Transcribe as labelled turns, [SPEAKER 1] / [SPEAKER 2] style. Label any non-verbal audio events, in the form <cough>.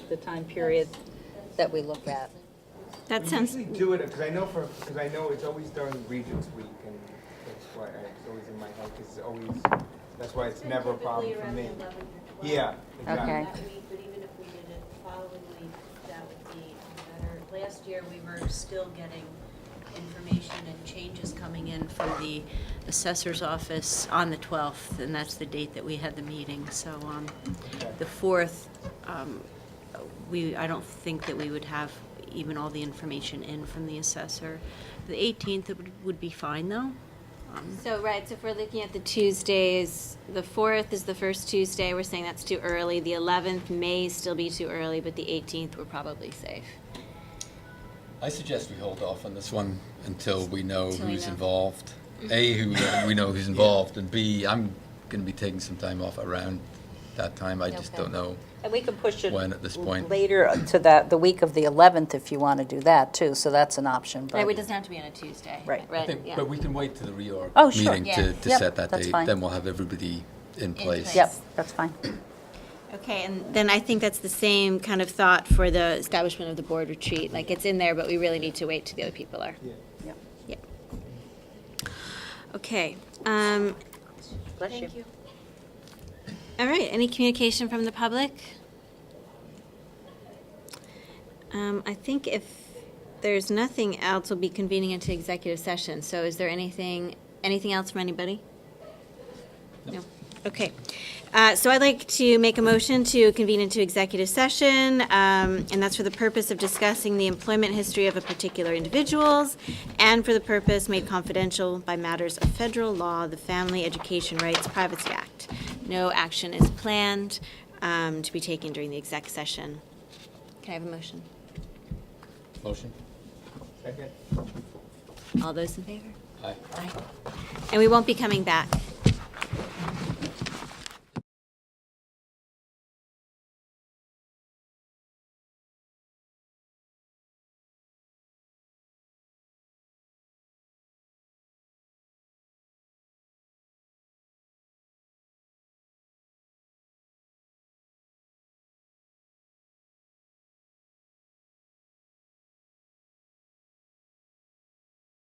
[SPEAKER 1] the time period that we look at.
[SPEAKER 2] That
[SPEAKER 3] We
[SPEAKER 2] sounds,
[SPEAKER 3] usually do it, because I know for, because I know it's always during Regents Week, and that's why I- it's always in my head, because it's always, that's why it's never a problem for me. Yeah,
[SPEAKER 1] Okay.
[SPEAKER 3] exactly.
[SPEAKER 4] That week, but even if we did it the following week, that would be better. Last year, we were still getting information and changes coming in from the assessor's office on the 12th, and that's the date that we had the meeting. So um, the 4th, um, we, I don't think that we would have even all the information in from the assessor. The 18th would- would be fine, though. Um,
[SPEAKER 2] so, right, so if we're looking at the Tuesdays, the 4th is the first Tuesday, we're saying that's too early. The 11th may still be too early, but the 18th, we're probably safe.
[SPEAKER 5] I suggest we hold off on this one until we know Mm-hmm.
[SPEAKER 2] Till we
[SPEAKER 5] who's
[SPEAKER 2] know.
[SPEAKER 5] involved. A, <coughs> who we know who's involved, and B, I'm going to be taking some time off around that time. I just
[SPEAKER 1] Okay.
[SPEAKER 5] don't know.
[SPEAKER 1] And we can push it.
[SPEAKER 5] When at this point?
[SPEAKER 1] Later to that, the week of the 11th, if you want to do that, too, so that's an option. but-
[SPEAKER 2] Right, it doesn't have to be on a Tuesday.
[SPEAKER 1] Right.
[SPEAKER 5] I
[SPEAKER 2] Right,
[SPEAKER 5] think-
[SPEAKER 2] yeah.
[SPEAKER 5] But we can wait to the reorg
[SPEAKER 1] Oh, sure.
[SPEAKER 5] meeting
[SPEAKER 2] Yeah.
[SPEAKER 5] to, to
[SPEAKER 1] Yep,
[SPEAKER 5] set that
[SPEAKER 1] that's
[SPEAKER 5] date.
[SPEAKER 1] fine.
[SPEAKER 5] Then we'll have everybody in place.
[SPEAKER 1] Yep, that's fine.
[SPEAKER 2] Okay, and then I think that's the same kind of thought for the establishment of the board retreat. Like, it's in there, but we really need to wait till the other people are.
[SPEAKER 3] Yeah.
[SPEAKER 1] Yep.
[SPEAKER 2] Yeah. Okay, um,
[SPEAKER 1] Bless
[SPEAKER 4] Thank you.
[SPEAKER 2] all right, any communication from the public? Um, I think if there's nothing else, we'll be convening into executive session. So is there anything, anything else from anybody? No. Okay. Uh, So I'd like to make a motion to convene into executive session, um, and that's for the purpose of discussing the employment history of a particular individuals, and for the purpose made confidential by matters of federal law, the Family Education Rights Privacy Act. No action is planned um, to be taken during the exec session. Can I have a motion?
[SPEAKER 5] Motion?
[SPEAKER 3] Second?
[SPEAKER 2] All those in favor?
[SPEAKER 5] Aye.
[SPEAKER 2] And we won't be coming back.